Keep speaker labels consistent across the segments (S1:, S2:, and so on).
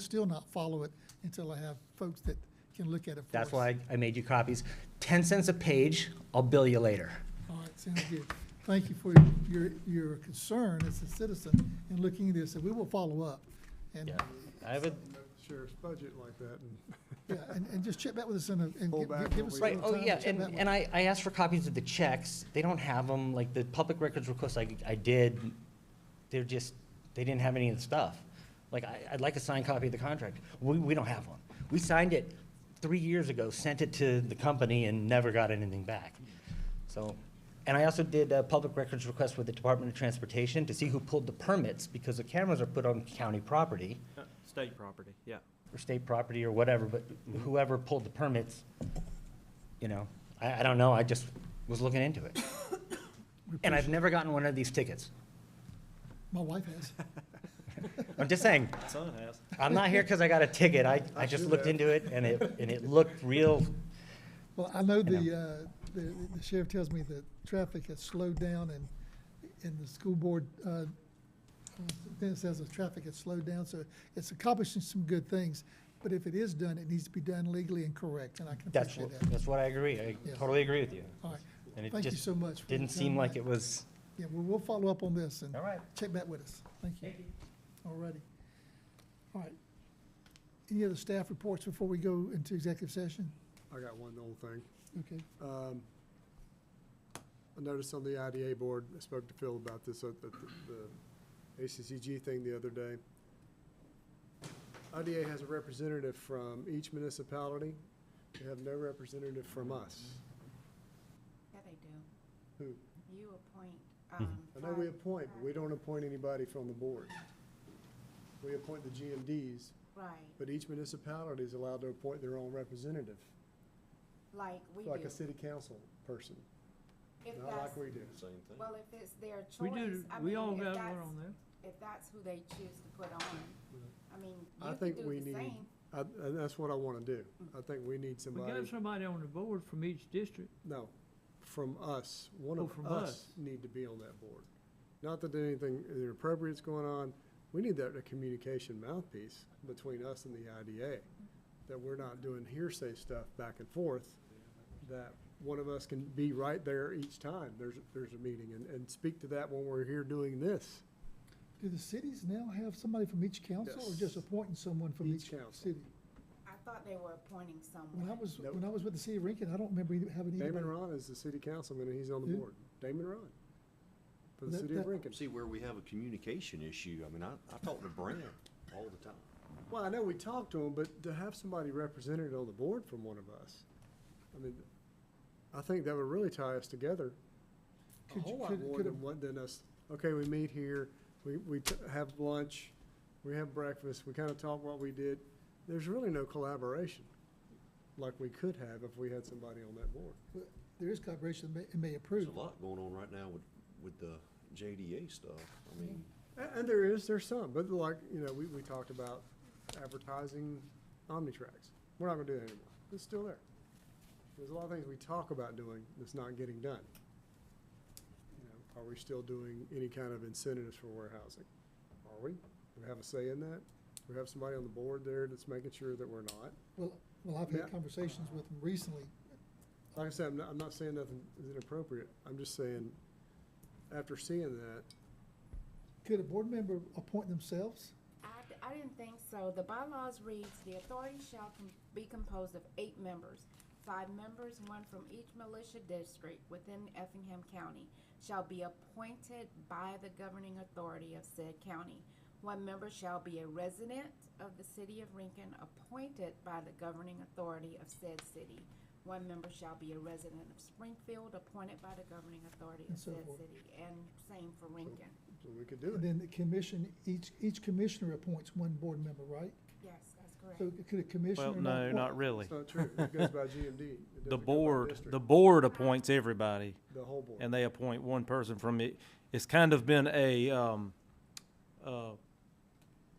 S1: still not follow it until I have folks that can look at it for us.
S2: That's why I- I made you copies. 10 cents a page, I'll bill you later.
S1: All right, sounds good. Thank you for your- your, your concern as a citizen in looking at this, and we will follow up. And,
S2: Yeah. I have a,
S3: sheriff's budget like that, and
S1: yeah, and, and just check back with us and, and
S3: Pull
S1: give-
S3: back
S1: give us
S3: what
S1: a
S3: we-
S2: right,
S1: little
S2: oh,
S1: time to
S2: yeah,
S1: check
S2: and,
S1: back with
S2: and
S1: us.
S2: I, I asked for copies of the checks. They don't have them, like, the public records request I, I did, they're just, they didn't have any of the stuff. Like, I, I'd like a signed copy of the contract. We, we don't have one. We signed it three years ago, sent it to the company and never got anything back. So, and I also did a public records request with the Department of Transportation to see who pulled the permits, because the cameras are put on county property.
S4: Uh, State property, yeah.
S2: or state property or whatever, but whoever pulled the permits, you know, I, I don't know, I just was looking into it.
S1: We
S2: And I've
S1: appreciate-
S2: never gotten one of these tickets.
S1: My wife has.
S2: I'm just saying,
S4: My son has.
S2: I'm not here because I got a ticket, I, I just
S3: do
S2: looked
S3: that.
S2: into it and it, and it looked real,
S1: Well, I know
S2: know.
S1: the, uh, the the sheriff tells me that traffic has slowed down and, and the school board, uh, then it says the traffic has slowed down, so it's accomplishing some good things. But if it is done, it needs to be done legally and correct, and I can
S2: that's,
S1: appreciate
S2: what-
S1: that.
S2: that's what I agree, I
S1: Yes.
S2: totally agree with you.
S1: All right,
S2: And it
S1: thank you
S2: just
S1: so much. for
S2: Didn't
S1: your
S2: seem
S1: time.
S2: like it was,
S1: Yeah, well, we'll follow up on this and
S2: all right.
S1: check back with us. Thank you. All righty. All right. Any other staff reports before we go into executive session?
S3: I got one old thing.
S1: Okay.
S3: Um, I noticed on the IDA board, I spoke to Phil about this at the- the ACCG thing the other day. IDA has a representative from each municipality. They have no representative from us.
S5: Yeah, they do.
S3: Who?
S5: You appoint, um.
S3: I know we
S5: five-
S3: appoint, but we don't appoint anybody from the board. We appoint the GMDs,
S5: Right,
S3: but each municipality is allowed to appoint their own representative,
S5: like we do.
S3: like a city council person,
S5: If
S3: not like
S5: that's,
S3: we do.
S5: well, if it's their
S6: We
S5: choice,
S6: do,
S5: I
S6: we
S5: mean,
S6: all
S5: if
S6: got
S5: that's,
S6: one on there.
S5: if that's who they choose to put on, I mean,
S3: I
S5: you
S3: think
S5: could
S3: we
S5: do the
S3: need-
S5: same.
S3: I, and that's what I want to do. I think we need
S6: We got
S3: somebody,
S6: somebody on the board from each district.
S3: no, from us, one
S6: Oh,
S3: of
S6: from
S3: us
S6: us.
S3: need to be on that board. Not that there's anything inappropriate's going on, we need that communication mouthpiece between us and the IDA, that we're not doing hearsay stuff back and forth, that one of us can be right there each time there's, there's a meeting, and, and speak to that when we're here doing this.
S1: Do the cities now have somebody from each council or just
S3: Yes.
S1: appointing someone from
S3: Each
S1: each
S3: council.
S1: city?
S5: I thought they were appointing
S1: When I
S5: someone.
S1: was,
S3: Nope.
S1: when I was with the city of Rankin, I don't remember any- having anybody.
S3: Damon Ron is the city councilman, and he's on the
S1: Who?
S3: board. Damon Ron, for the
S1: That-
S3: city
S1: that-
S3: of Lincoln.
S7: See where we have a communication issue. I mean, I, I talk to Brent all the time.
S3: Well, I know we talked to them, but to have somebody represented on the board from one of us, I mean, I think that would really tie us together. A
S1: Could you-
S3: whole lot
S1: could-
S3: more
S1: could
S3: than what, than us, okay, we meet here, we, we t- have lunch, we have breakfast, we kind of talk what we did. There's really no collaboration like we could have if we had somebody on that board.
S1: There is collaboration, it may- it may
S7: There's
S1: approve.
S7: a lot going on right now with, with the JDA stuff. I mean,
S3: A- And there is, there's some, but like, you know, we, we talked about advertising Omnitracks. We're not gonna do that anymore. It's still there. There's a lot of things we talk about doing that's not getting done. You know, Are we still doing any kind of incentives for warehousing? Are we? Do we have a say in that? Do we have somebody on the board there that's making sure that we're not?
S1: Well, well, I've
S3: Yeah.
S1: had conversations with them recently.
S3: Like I said, I'm not, I'm not saying nothing is inappropriate. I'm just saying, after seeing that,
S1: Could a board member appoint themselves?
S5: I, d- I didn't think so. The bylaws reads, the authority shall com- be composed of eight members. Five members, one from each militia district within Effingham County, shall be appointed by the governing authority of said county. One member shall be a resident of the city of Rinkin, appointed by the governing authority of said city. One member shall be a resident of Springfield, appointed by the governing authority
S1: And
S5: of
S1: so
S5: said
S1: forth.
S5: city, and same for Rinkin.
S3: so we could do
S1: And
S3: it.
S1: then the commission, each, each commissioner appoints one board member, right?
S5: Yes, that's correct.
S1: So could a commissioner?
S4: Well, no,
S1: appoint-
S4: not really.
S3: It's not true. It goes by GMD. It doesn't
S4: The
S3: go by
S4: board,
S3: district.
S4: the board appoints everybody,
S3: The whole board.
S4: and they appoint one person from it. It's kind of been a, um, uh,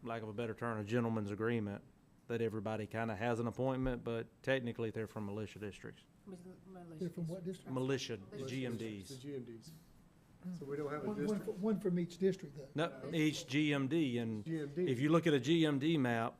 S4: lack of a better term, a gentleman's agreement, that everybody kind of has an appointment, but technically they're from militia districts.
S5: Mis- militia
S1: They're from what district?
S4: Militia,
S5: The
S3: Those districts,
S4: GMDs.
S3: The GMDs. So we don't have
S1: One,
S3: a
S1: one,
S3: district.
S1: fr- one from each district, though.
S4: No, each GMD, and
S3: GMD.
S4: if you look at a GMD map,